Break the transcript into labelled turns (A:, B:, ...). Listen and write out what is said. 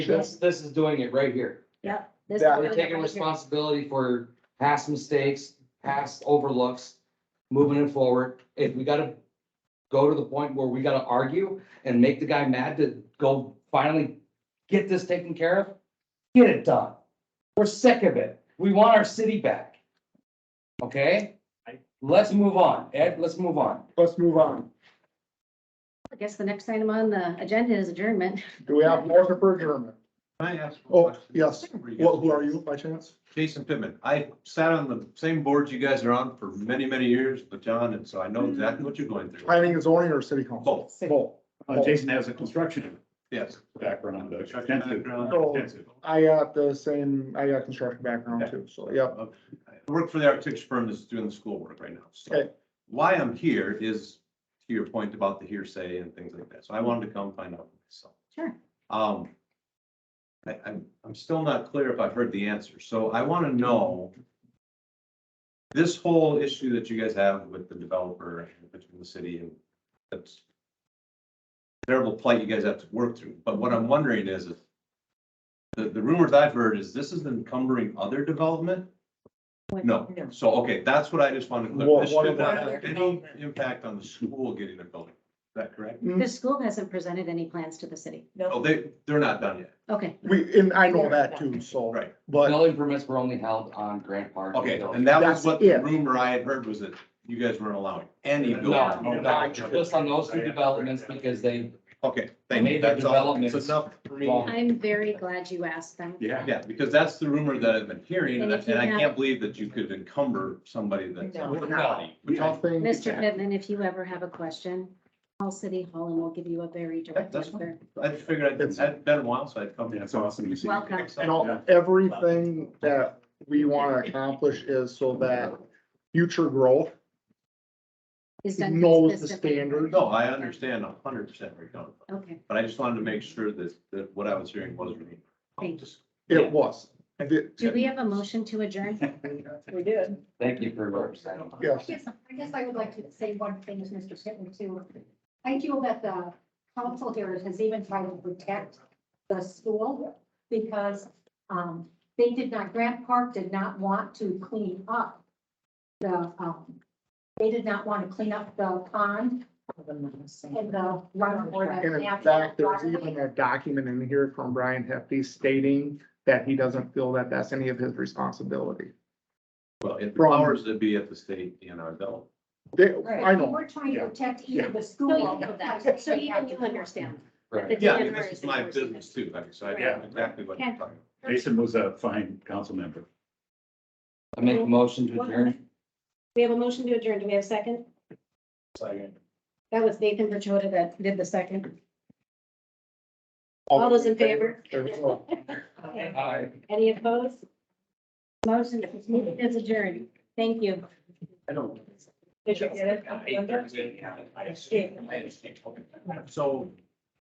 A: This, this is doing it right here.
B: This is
C: Yeah.
B: doing
A: We're
B: it
A: taking
B: right here.
A: responsibility for past mistakes, past overlooks, moving it forward. If we gotta go to the point where we gotta argue and make the guy mad to go finally get this taken care of, get it done. We're sick of it. We want our city back. Okay? Let's move on. Ed, let's move on.
C: Let's move on.
B: I guess the next item on the agenda is adjournment.
C: Do we have more for adjournment?
D: Can I ask?
C: Oh,
D: one question?
C: yes. Well, who are you by chance?
D: Jason Pittman. I sat on the same boards you guys are on for many, many years with John, and so I know exactly what you're going through.
C: Planning and zoning or city council?
D: Both,
C: Both.
E: Uh, Jason has a construction
D: yes.
E: background, uh,
D: Construction
E: extensive-
D: background.
E: extensive.
C: I got the same, I got construction background too, so yeah.
D: I work for the architecture firm that's doing the schoolwork right now. So
C: Okay.
D: why I'm here is to your point about the hearsay and things like that. So I wanted to come find out for myself.
B: Sure.
D: Um, I, I'm, I'm still not clear if I've heard the answer. So I want to know this whole issue that you guys have with the developer and between the city and that's terrible plight you guys have to work through. But what I'm wondering is if the, the rumors I've heard is this is encumbering other development? No, so, okay, that's what I just wanted to
C: What-
D: clear. This
C: what
D: should not
C: about-
D: have any impact on the school getting a building. Is that correct?
B: The school hasn't presented any plans to the city.
D: Oh, they, they're not done yet.
B: Okay,
C: We, and I know that too, so.
D: Right.
C: But
A: Building permits were only held on Grant Park.
D: Okay, and that was
C: That's
D: what the
C: it.
D: rumor I had heard was that you guys weren't allowing any
A: No,
D: building.
A: no, just on those two developments because they
D: Okay, thank you.
A: Major
D: That's all. It's
A: developments.
D: enough for me.
A: Well,
B: I'm very glad you asked them.
E: Yeah.
D: Yeah, because that's the rumor that I've been hearing and
B: And
D: I
B: if you
D: and I can't
B: have-
D: believe that you could encumber somebody that's.
F: No.
C: we don't think.
B: Mr. Pittman, if you ever have a question, call City Hall and we'll give you a very direct
D: That's fine.
B: answer.
D: I just figured I'd, I'd been a while, so I'd come.
E: Yeah, it's awesome to see.
B: Welcome.
C: And all, everything that we want to accomplish is so that future growth
B: Is done
C: knows the
B: consistently.
C: standard.
D: No, I understand a hundred percent where you're coming from,
B: Okay,
D: but I just wanted to make sure that, that what I was hearing was. real.
B: Thank
C: It was. And it-
B: do we have a motion to adjourn?
F: We did.
A: Thank you for representing.
C: Yes.
G: Yes, I guess I would like to say one thing to Mr. Pittman too. I feel that the council here has even tried to protect the school because um, they did not, Grant Park did not want to clean up the, um, they did not want to clean up the pond and the run or the.
C: And in
G: natural
C: fact, there's
G: waterway.
C: even a document in here from Brian Hefty stating that he doesn't feel that that's any of his responsibility.
D: Well, if the
C: From-
D: powers that be at the state and our bill.
C: They,
G: Right.
C: I know,
G: We're trying to
C: Yeah.
G: protect either the
B: No,
G: school.
B: you know that. So even you understand.
A: Right.
B: The
D: Yeah, I mean,
B: DNR
D: this is
B: the
D: my
B: person.
D: business too, I mean, so I know
E: Yeah.
D: exactly what you're talking about.
E: Jason was a fine council member.
A: I make a motion to adjourn.
B: We have a motion to adjourn. Do we have a second? That was Nathan Verchota that did the second. All those in favor?
C: There we go.
G: Okay.
A: Aye.
B: Any opposed? Motion is adjourned. Thank you.
F: Did you get it?
D: So